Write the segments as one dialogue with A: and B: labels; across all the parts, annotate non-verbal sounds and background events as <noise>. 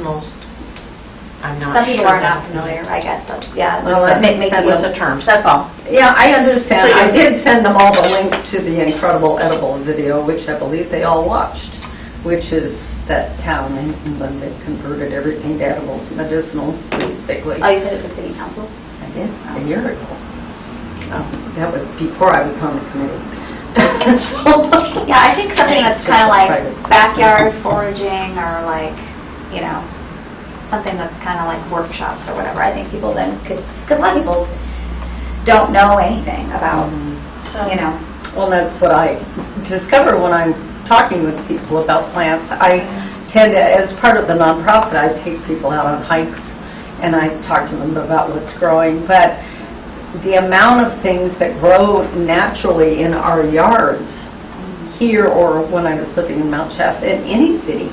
A: Most, I'm not
B: Some people
A: sure.
B: are not familiar, I guess, so, yeah.
C: Well,
B: that
C: I
B: may- make
C: send
B: you-
C: them the terms, that's all. Yeah, I understand.
B: So you-
C: I did send them all the link to the Incredible Edible video, which I believe they all watched, which is that town in England that converted everything to edibles, medicinals, basically.
B: Oh, you said it was city council? <laughs>
C: I did, a year ago. Oh, That was before I was on the <laughs> committee.
B: Yeah, I think something that's kind of
C: Private.
B: like backyard foraging or like, you know, something that's kind of like workshops or whatever. I think people then could, because a lot of people don't know anything about,
C: Um,
B: you know.
C: Well, that's what I discover when I'm talking with people about plants. I tend, to as part of the nonprofit, I take people out on hikes and I talk to them about what's growing. But the amount of things that grow naturally in our yards here or when I was living in Mount Shasta, in any city,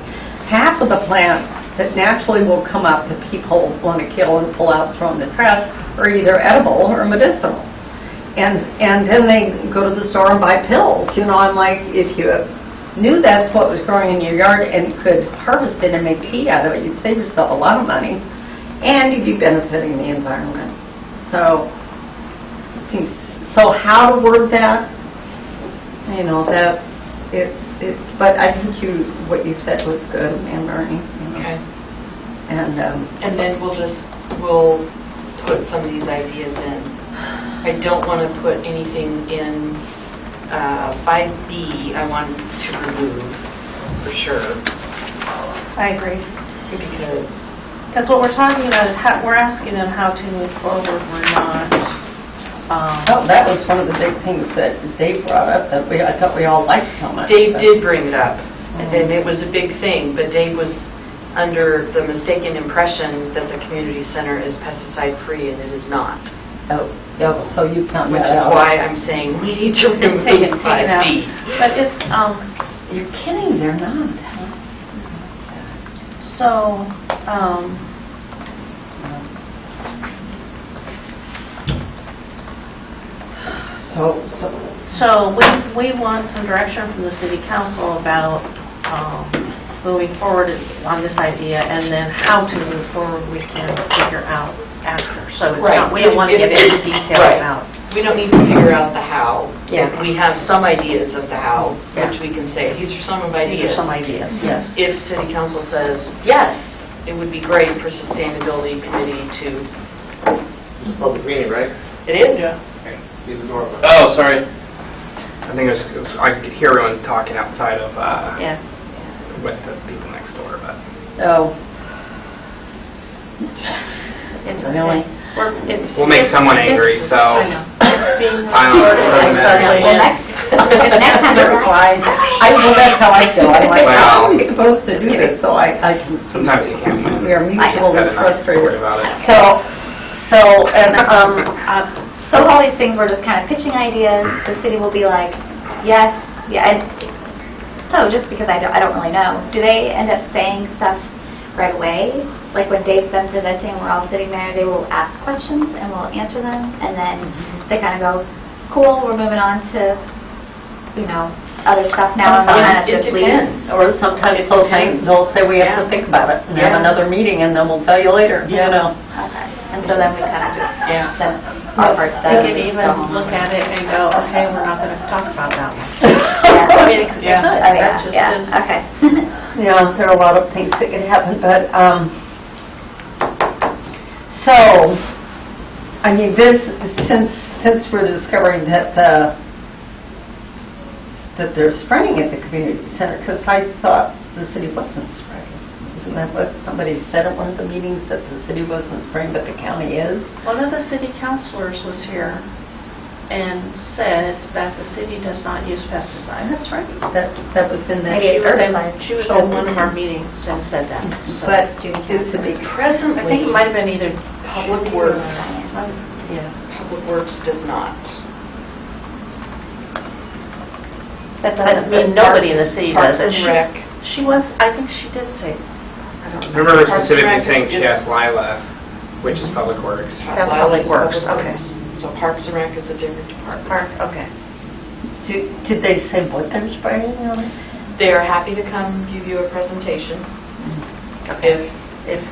C: half of the plants that naturally will come up that people want to kill and pull out, throw in the trash, are either edible or medicinal. And, and then they go to the store and buy pills, you know, I'm like, if you knew that's what was growing in your yard and could harvest it and make tea out of it, you'd save yourself a lot of money, and you'd be benefiting the environment. So, seems, so how to word that, you know, that's, it's, it's, but I think you, what you said was good, Anne Marie. you know.
A: Okay,
C: And, um,
A: and then we'll just, we'll put some of these ideas in. I don't want to put anything in, uh, 5B, I want to remove, for sure,
D: I agree.
A: because,
D: Because what we're talking about is how, we're asking them how to move forward, we're not,
C: oh,
D: um,
C: that was one of the big things that Dave brought up, that we, I thought we all liked so much.
A: Dave
C: but-
A: did bring it up,
D: Mm-hmm.
A: and it was a big thing, but Dave was under the mistaken impression that the community center is pesticide-free, and it is not,
C: Oh, yeah, so you count
A: which
C: that
A: is
C: out.
A: <laughs> why I'm saying we need to remove
D: take it, take it out.
A: 5B.
D: But it's, um,
C: You're kidding, they're not.
D: so, um,
C: So, so,
D: so we, we want some direction from the city council about, um, moving forward on this idea, and then how to move forward, we can figure out after. So it's not, we don't want to
A: Right.
D: give any detail
A: Right.
D: about.
A: We don't need to figure out the how.
D: Yeah.
A: We have some ideas of the how,
D: Yeah.
A: which we can say, these are some of
D: These are
A: ideas.
D: some ideas, yes.
A: If city council says, yes, it would be great for sustainability committee to,
E: This is public meeting, right?
A: it is?
E: Leave the door open.
F: Oh, sorry. I think it was, it was- I could hear everyone talking outside of, uh,
D: Yeah.
F: with the people next door, but.
C: oh, <laughs>
D: It's
C: I know.
D: okay. We're- it's-
F: We'll make someone angry, so.
D: It's being
F: <laughs> I don't know, it doesn't
D: recorded.
B: Well,
F: matter.
B: next, next time we're
C: Why? <laughs> I, well, that's how I feel, I'm like, how are we supposed to do this? So I, I can.
F: Sometimes you can't win.
C: We are mutually
F: Instead of not worried
C: frustrated.
F: about it.
C: So,
D: So, and, um, uh,
B: So with all these things, we're just kind of pitching ideas, the city will be like, yes, yeah, and so just because I don't, I don't really know, do they end up saying stuff right away? Like when Dave's been presenting, we're all sitting there, they will ask questions and we'll answer them, and then they kind of go, cool, we're moving on to, you know, other stuff now, and we'll kind of
A: It- it
B: just leave.
A: depends.
C: or sometimes
A: It
C: they'll
A: depends.
C: think, they'll say we have
A: Yeah.
C: to think about it, and have
A: Yeah.
C: another meeting, and then we'll tell you later, you
A: Yeah.
C: know?
B: Okay. And so then we kind of just,
A: Yeah.
B: then our part
D: they
B: does.
D: could
C: um,
D: even look at it and go, okay, we're not going to talk about that one. I mean, it could be
C: Yeah.
D: good.
B: Oh,
D: That
B: yeah,
D: just
B: yeah,
D: is-
B: okay. <laughs>
C: Yeah, there are a lot of things that could happen, but, um, so, I mean, this, since, since we're discovering that the, that they're spraying at the community center, because I thought the city wasn't spraying. Isn't that what somebody said at one of the meetings, that the city wasn't spraying, but the county is?
D: One of the city councilors was here and said that the city does not use pesticides. That's right.
C: That, that was in that.
B: Maybe
D: She
B: it's
D: was in,
B: herbicide.
D: she was in one of our meetings and said that. so-
C: But is the big
D: I think it
A: Presently,
D: might have been either.
A: Public Works.
D: Yeah.
A: Public Works does not.
D: That doesn't mean nobody in the city does
A: Parks
D: it.
A: and
D: She-
A: Rec,
D: She was, I think she did say
A: I
F: I
A: don't know.
F: Remember
A: Parks and Rec
F: specifically saying
A: is-
F: she asked Lila, which is Public Works.
C: That's Public Works, okay.
A: So Parks and Rec is a different department.
C: park, okay. Did, did they say what they're spraying on?
D: Mm-hmm.
A: They are happy to come give you a presentation if it's